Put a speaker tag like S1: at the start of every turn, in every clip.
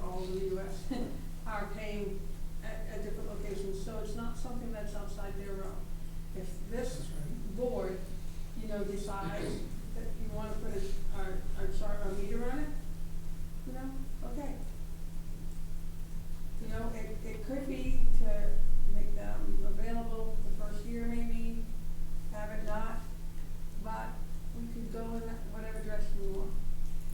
S1: a, a, a different location, so it's not something that's outside their realm. If this board, you know, decides that you wanna put a, our, our chart, our meter on it, you know, okay. You know, it, it could be to make them available the first year maybe, have it not, but we could go in that- whatever direction we want.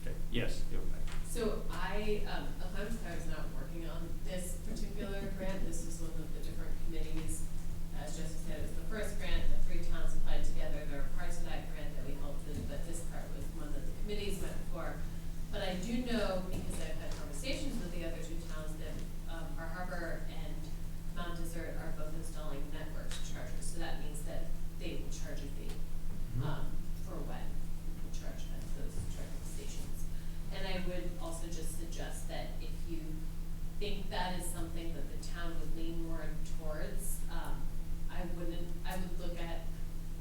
S2: Okay, yes, go back.
S3: So I, um, Alhams I was not working on this particular grant, this is one of the different committees. As Jessica said, it was the first grant, the three towns applied together, there are parts of that grant that we helped with, but this part was one that the committees went for. But I do know, because I've had conversations with the other two towns, that, um, Bar Harbor and Mount Desert are both installing network chargers, so that means that they will charge a fee um, for when people charge at those charging stations. And I would also just suggest that if you think that is something that the town would lean more towards, um, I wouldn't, I would look at,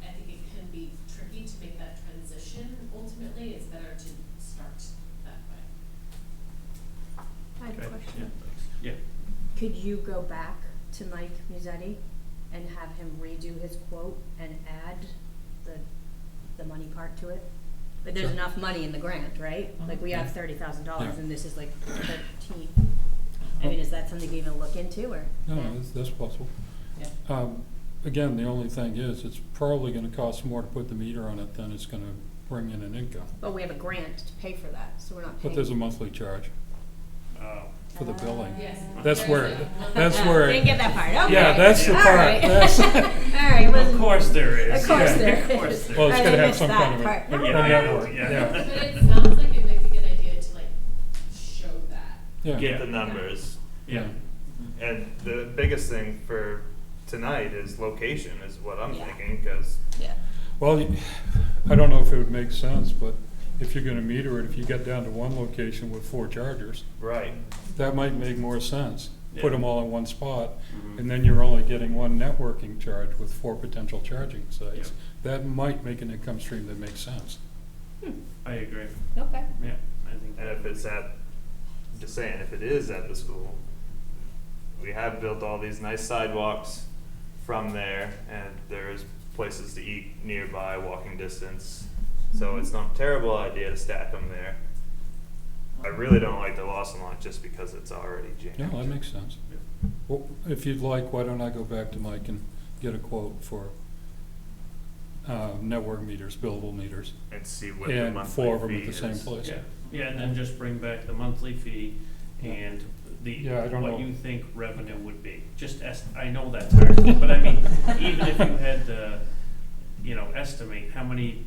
S3: I think it can be tricky to make that transition ultimately, it's better to start that way.
S4: I have
S2: Okay,
S4: a
S2: Yeah,
S4: question.
S2: thanks. Yeah,
S4: Could you go back to Mike Musetti and have him redo his quote and add the, the money part to it? But there's
S5: Sure. Uh-huh.
S4: enough money in the grant, right? Like, we have
S5: Yeah.
S4: thirty thousand dollars
S5: Yeah. Uh-huh.
S4: and this is like thirteen. I mean, is that something you even look into or?
S5: No, that's, that's possible.
S4: Yeah.
S5: Um, again, the only thing is, it's probably gonna cost more to put the meter on it than it's gonna bring in an income.
S4: But we have a grant to pay for that, so we're not paying.
S5: But there's a monthly charge
S2: uh,
S5: for
S6: Um,
S5: the billing.
S3: Yes.
S5: That's
S3: There's
S5: where-
S3: a-
S5: that's where-
S4: Didn't get that part, okay.
S5: Yeah, that's
S2: the
S4: All
S2: part,
S4: right.
S5: that's-
S4: All right,
S2: of
S4: wasn't-
S2: course there is.
S4: Of course
S2: Yeah,
S4: there
S2: Of course
S4: is.
S2: there
S5: Well, it's
S4: I
S2: is.
S5: gonna have
S4: missed
S5: some
S4: that
S5: kind of
S4: part.
S5: a, a
S2: Yeah, I know,
S5: network,
S2: yeah.
S3: But
S5: yeah,
S3: it sounds like it might be a good idea to like show that.
S5: yeah.
S6: get the numbers.
S2: Yeah,
S6: And the biggest thing for tonight is location, is what I'm
S3: Yeah.
S6: thinking, because
S3: Yeah.
S5: Well, you- I don't know if it would make sense, but if you're gonna meter it, if you get down to one location with four chargers,
S6: right,
S5: that might make more sense.
S2: Yeah.
S5: Put them all in one spot,
S2: Mhm.
S5: and then you're only getting one networking charge with four potential charging sites.
S2: Yeah.
S5: That might make an income stream that makes sense.
S2: I agree.
S4: Okay.
S2: Yeah, I think.
S6: and
S2: that-
S6: if it's at, just saying, if it is at the school, we have built all these nice sidewalks from there, and there is places to eat nearby, walking distance.
S3: Mm-hmm.
S6: So it's not a terrible idea to stack them there. I really don't like the Lawson lot just because it's already jammed.
S5: Yeah, that makes sense.
S2: Yeah.
S5: Well, if you'd like, why don't I go back to Mike and get a quote for uh, network meters, billable meters?
S6: And see what the
S5: And
S6: monthly
S5: four of them at
S6: fee
S5: the same
S6: is.
S5: place.
S2: Yeah, yeah, and then just bring back the monthly fee and the,
S5: Yeah, I don't
S2: what
S5: know.
S2: you think revenue would be. Just est, I know that's hard, but I mean, even if you had to, you know, estimate how many,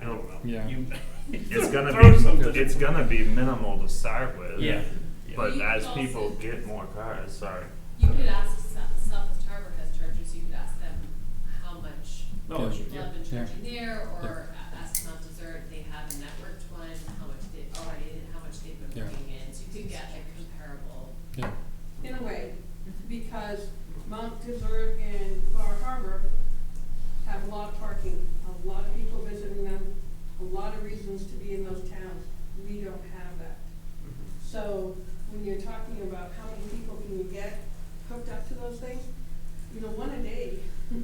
S2: I don't know.
S5: Yeah.
S2: You-
S6: It's gonna
S2: throw something.
S6: be, it's gonna be minimal to start with.
S2: Yeah. yeah.
S6: But
S3: You
S6: as
S3: also-
S6: people get more cars, sorry.
S3: You could ask South, Southwest Harbor has chargers, you could ask them how much
S2: No, it's-
S3: people
S2: yeah.
S3: have been
S5: Yeah.
S3: charging there, or a- ask Mount Desert, they have a networked one, how much they already, how much they've been
S5: Yeah.
S3: bringing in, so you could get like comparable.
S5: Yeah,
S1: In a way, because Mount Desert and Bar Harbor have a lot of parking, a lot of people visiting them, a lot of reasons to be in those towns. We don't have that. So when you're talking about how many people can you get hooked up to those things, you know, one a day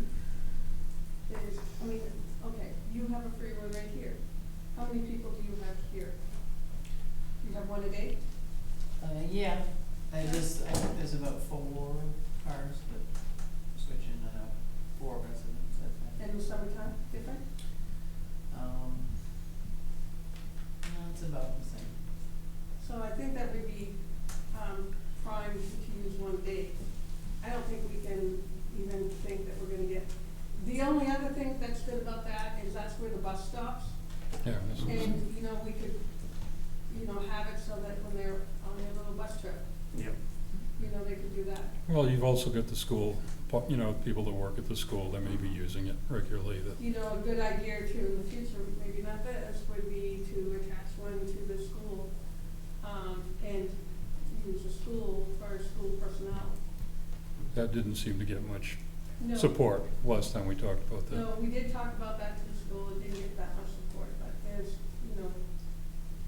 S1: is, I mean, okay, you have a freeway right here. How many people do you have here? You have one a day?
S7: Uh, yeah, I just, I think there's about four cars that switch in and out, four residents, I
S1: And
S7: think.
S1: in the summertime, different?
S7: Um, no, it's about the same.
S1: So I think that would be, um, prime to use one day. I don't think we can even think that we're gonna get, the only other thing that's good about that is that's where the bus stops.
S5: yeah. that's-
S1: And, you know, we could, you know, have it so that when they're on their little bus trip,
S2: Yep.
S1: you know, they could do that.
S5: Well, you've also got the school, po- you know, people that work at the school, that may be using it regularly, that,
S1: You know, a good idea to, in the future, maybe not this, would be to attach one to the school, um, and use the school for school personnel.
S5: that didn't seem to get much
S1: No.
S5: support last time we talked about that.
S1: No, we did talk about that to the school, it didn't get that much support, but there's, you know,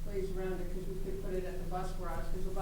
S1: ways around it, because we could put it at the bus garage, because the bus